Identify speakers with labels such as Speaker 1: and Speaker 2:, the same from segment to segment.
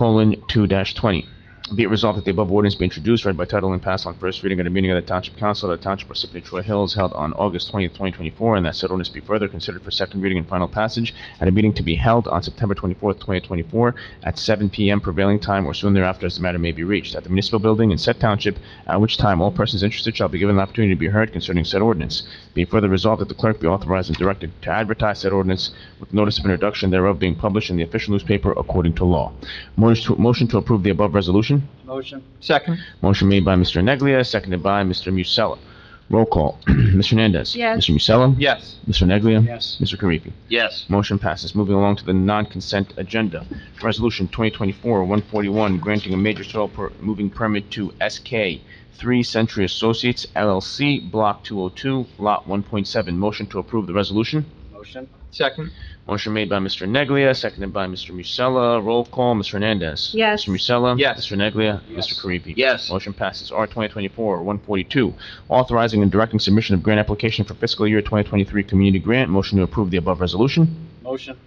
Speaker 1: colon two twenty. Be it resolved that the above ordinance be introduced, read by title, and passed on first reading at a meeting of the Township Council of the Township Parsippany Troy Hills held on August twentieth, twenty twenty-four, and that said ordinance be further considered for second reading and final passage at a meeting to be held on September twenty-fourth, twenty twenty-four, at seven PM prevailing time or soon thereafter as the matter may be reached, at the municipal building in said township, at which time all persons interested shall be given the opportunity to be heard concerning said ordinance. Be it further resolved that the clerk be authorized and directed to advertise said ordinance with notice of introduction thereof being published in the official newspaper according to law. Motion to- motion to approve the above resolution?
Speaker 2: Motion.
Speaker 3: Second.
Speaker 1: Motion made by Mr. Neglia, seconded by Mr. Musella. Roll call. Mr. Hernandez.
Speaker 4: Yes.
Speaker 1: Mr. Musella.
Speaker 3: Yes.
Speaker 1: Mr. Neglia.
Speaker 2: Yes.
Speaker 1: Mr. Karifi.
Speaker 3: Yes.
Speaker 1: Motion passes. Moving along to the non-consent agenda. Resolution 2024-141, granting a major soil per- moving permit to SK 3 Century Associates LLC, Block 202, Lot 1.7. Motion to approve the resolution?
Speaker 2: Motion.
Speaker 3: Second.
Speaker 1: Motion made by Mr. Neglia, seconded by Mr. Musella. Roll call, Mr. Hernandez.
Speaker 4: Yes.
Speaker 1: Mr. Musella.
Speaker 3: Yes.
Speaker 1: Mr. Neglia.
Speaker 2: Yes.
Speaker 1: Mr. Karifi.
Speaker 3: Yes.
Speaker 1: Motion passes. R 2024-142, authorizing and directing submission of grant application for fiscal year 2023 community grant. Motion to approve the above resolution.
Speaker 2: Motion.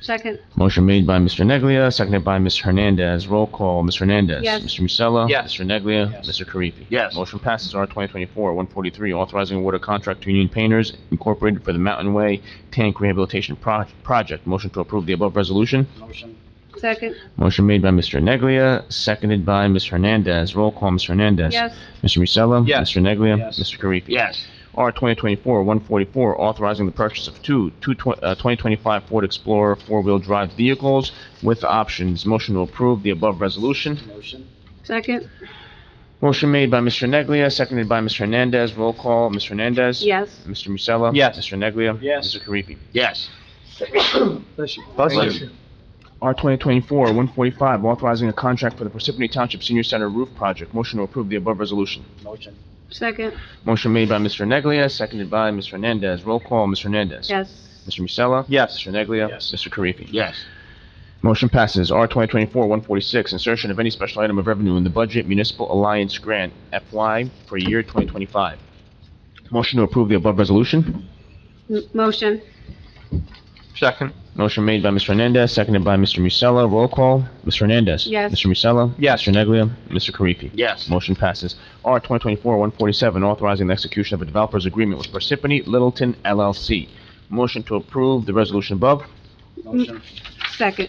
Speaker 4: Second,
Speaker 1: Motion made by Mr. Neglia, seconded by Ms. Hernandez. Roll call, Ms. Hernandez.
Speaker 4: Yes.
Speaker 1: Mr. Musella.
Speaker 3: Yes.
Speaker 1: Mr. Neglia.
Speaker 2: Yes.
Speaker 1: Mr. Karifi.
Speaker 3: Yes.
Speaker 1: Motion passes R 2024-143, authorizing award of contract to Union Painters Incorporated for the Mountain Way Tank Rehabilitation Proj- Project. Motion to approve the above resolution.
Speaker 2: Motion.
Speaker 4: second,
Speaker 1: Motion made by Mr. Neglia, seconded by Ms. Hernandez. Roll call, Ms. Hernandez.
Speaker 4: yes,
Speaker 1: Mr. Musella?
Speaker 3: Yes.
Speaker 1: Mr. Neglia?
Speaker 2: Yes.
Speaker 1: Mr. Karifi?
Speaker 3: Yes.
Speaker 1: R 2024-144, authorizing the purchase of two two tw- uh, 2025 Ford Explorer four-wheel drive vehicles with options. Motion to approve the above resolution.
Speaker 2: Motion.
Speaker 4: second,
Speaker 1: Motion made by Mr. Neglia, seconded by Mr. Hernandez. Roll call, Mr. Hernandez?
Speaker 4: yes,
Speaker 1: Mr. Musella?
Speaker 3: Yes.
Speaker 1: Mr. Neglia?
Speaker 2: Yes.
Speaker 1: Mr. Karifi?
Speaker 3: Yes.
Speaker 2: Bless you.
Speaker 3: Bless you.
Speaker 1: R 2024-145, authorizing a contract for the Parsippany Township Senior Center Roof Project. Motion to approve the above resolution.
Speaker 2: Motion.
Speaker 4: second,
Speaker 1: Motion made by Mr. Neglia, seconded by Mr. Hernandez. Roll call, Mr. Hernandez.
Speaker 4: yes,
Speaker 1: Mr. Musella?
Speaker 3: Yes.
Speaker 1: Mr. Neglia?
Speaker 2: Yes.
Speaker 1: Mr. Karifi?
Speaker 3: Yes.
Speaker 1: Motion passes. R 2024-146, insertion of any special item of revenue in the budget municipal alliance grant FY for year 2025. Motion to approve the above resolution.
Speaker 4: M- motion,
Speaker 3: Second.
Speaker 1: Motion made by Mr. Hernandez, seconded by Mr. Musella. Roll call, Mr. Hernandez.
Speaker 4: Yes.
Speaker 1: Mr. Musella.
Speaker 3: Yes.
Speaker 1: Mr. Neglia. Mr. Karifi.
Speaker 3: Yes.
Speaker 1: Motion passes. R 2024-147, authorizing the execution of a developer's agreement with Parsippany Littleton LLC. Motion to approve the resolution above.
Speaker 2: Motion.
Speaker 4: second,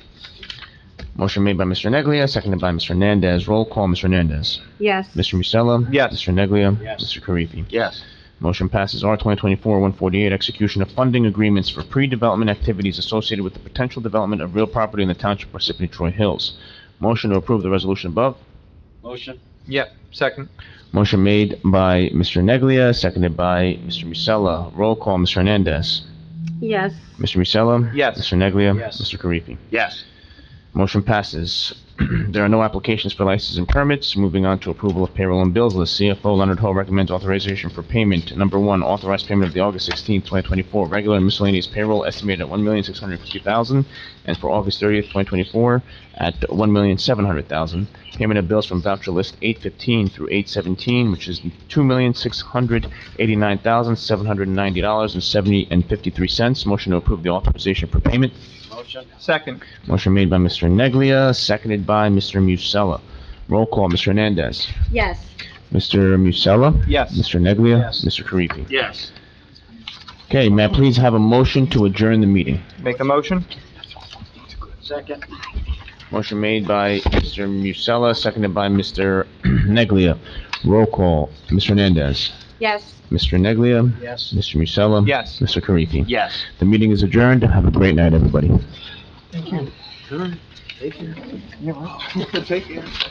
Speaker 1: Motion made by Mr. Neglia, seconded by Mr. Hernandez. Roll call, Mr. Hernandez.
Speaker 4: yes,
Speaker 1: Mr. Musella?
Speaker 3: Yes.
Speaker 1: Mr. Neglia?
Speaker 2: Yes.
Speaker 1: Mr. Karifi?
Speaker 3: Yes.
Speaker 1: Motion passes R 2024-148, execution of funding agreements for pre-development activities associated with the potential development of real property in the Township of Parsippany Troy Hills. Motion to approve the resolution above.
Speaker 2: Motion.
Speaker 3: Yep. Second.
Speaker 1: Motion made by Mr. Neglia, seconded by Mr. Musella. Roll call, Mr. Hernandez.
Speaker 4: yes,
Speaker 1: Mr. Musella?
Speaker 3: Yes.
Speaker 1: Mr. Neglia?
Speaker 2: Yes.
Speaker 1: Mr. Karifi?
Speaker 3: Yes.
Speaker 1: Motion passes. There are no applications for licenses and permits. Moving on to approval of payroll and bills list. CFO Leonard Ho recommends authorization for payment. Number one, authorized payment of the August 16, 2024 regular and miscellaneous payroll estimated at $1,650,000 and for August 30th, 2024 at $1,700,000. Payment of bills from voucher list 815 through 817, which is $2,689,790.70. Motion to approve the authorization for payment.
Speaker 2: Motion.
Speaker 3: Second.
Speaker 1: Motion made by Mr. Neglia, seconded by Mr. Musella. Roll call, Mr. Hernandez.
Speaker 4: yes,
Speaker 1: Mr. Musella?
Speaker 3: Yes.
Speaker 1: Mr. Neglia?
Speaker 2: Yes.
Speaker 1: Mr. Karifi?
Speaker 3: Yes.
Speaker 1: Okay, may I please have a motion to adjourn the meeting?
Speaker 3: Make a motion?
Speaker 2: Second.
Speaker 1: Motion made by Mr. Musella, seconded by Mr. Neglia. Roll call, Mr. Hernandez.
Speaker 4: yes.
Speaker 1: Mr. Neglia?
Speaker 2: Yes.
Speaker 1: Mr. Musella?
Speaker 3: Yes.
Speaker 1: Mr. Karifi?
Speaker 3: Yes.
Speaker 1: The meeting is adjourned. Have a great night, everybody.
Speaker 2: Take care. Take care.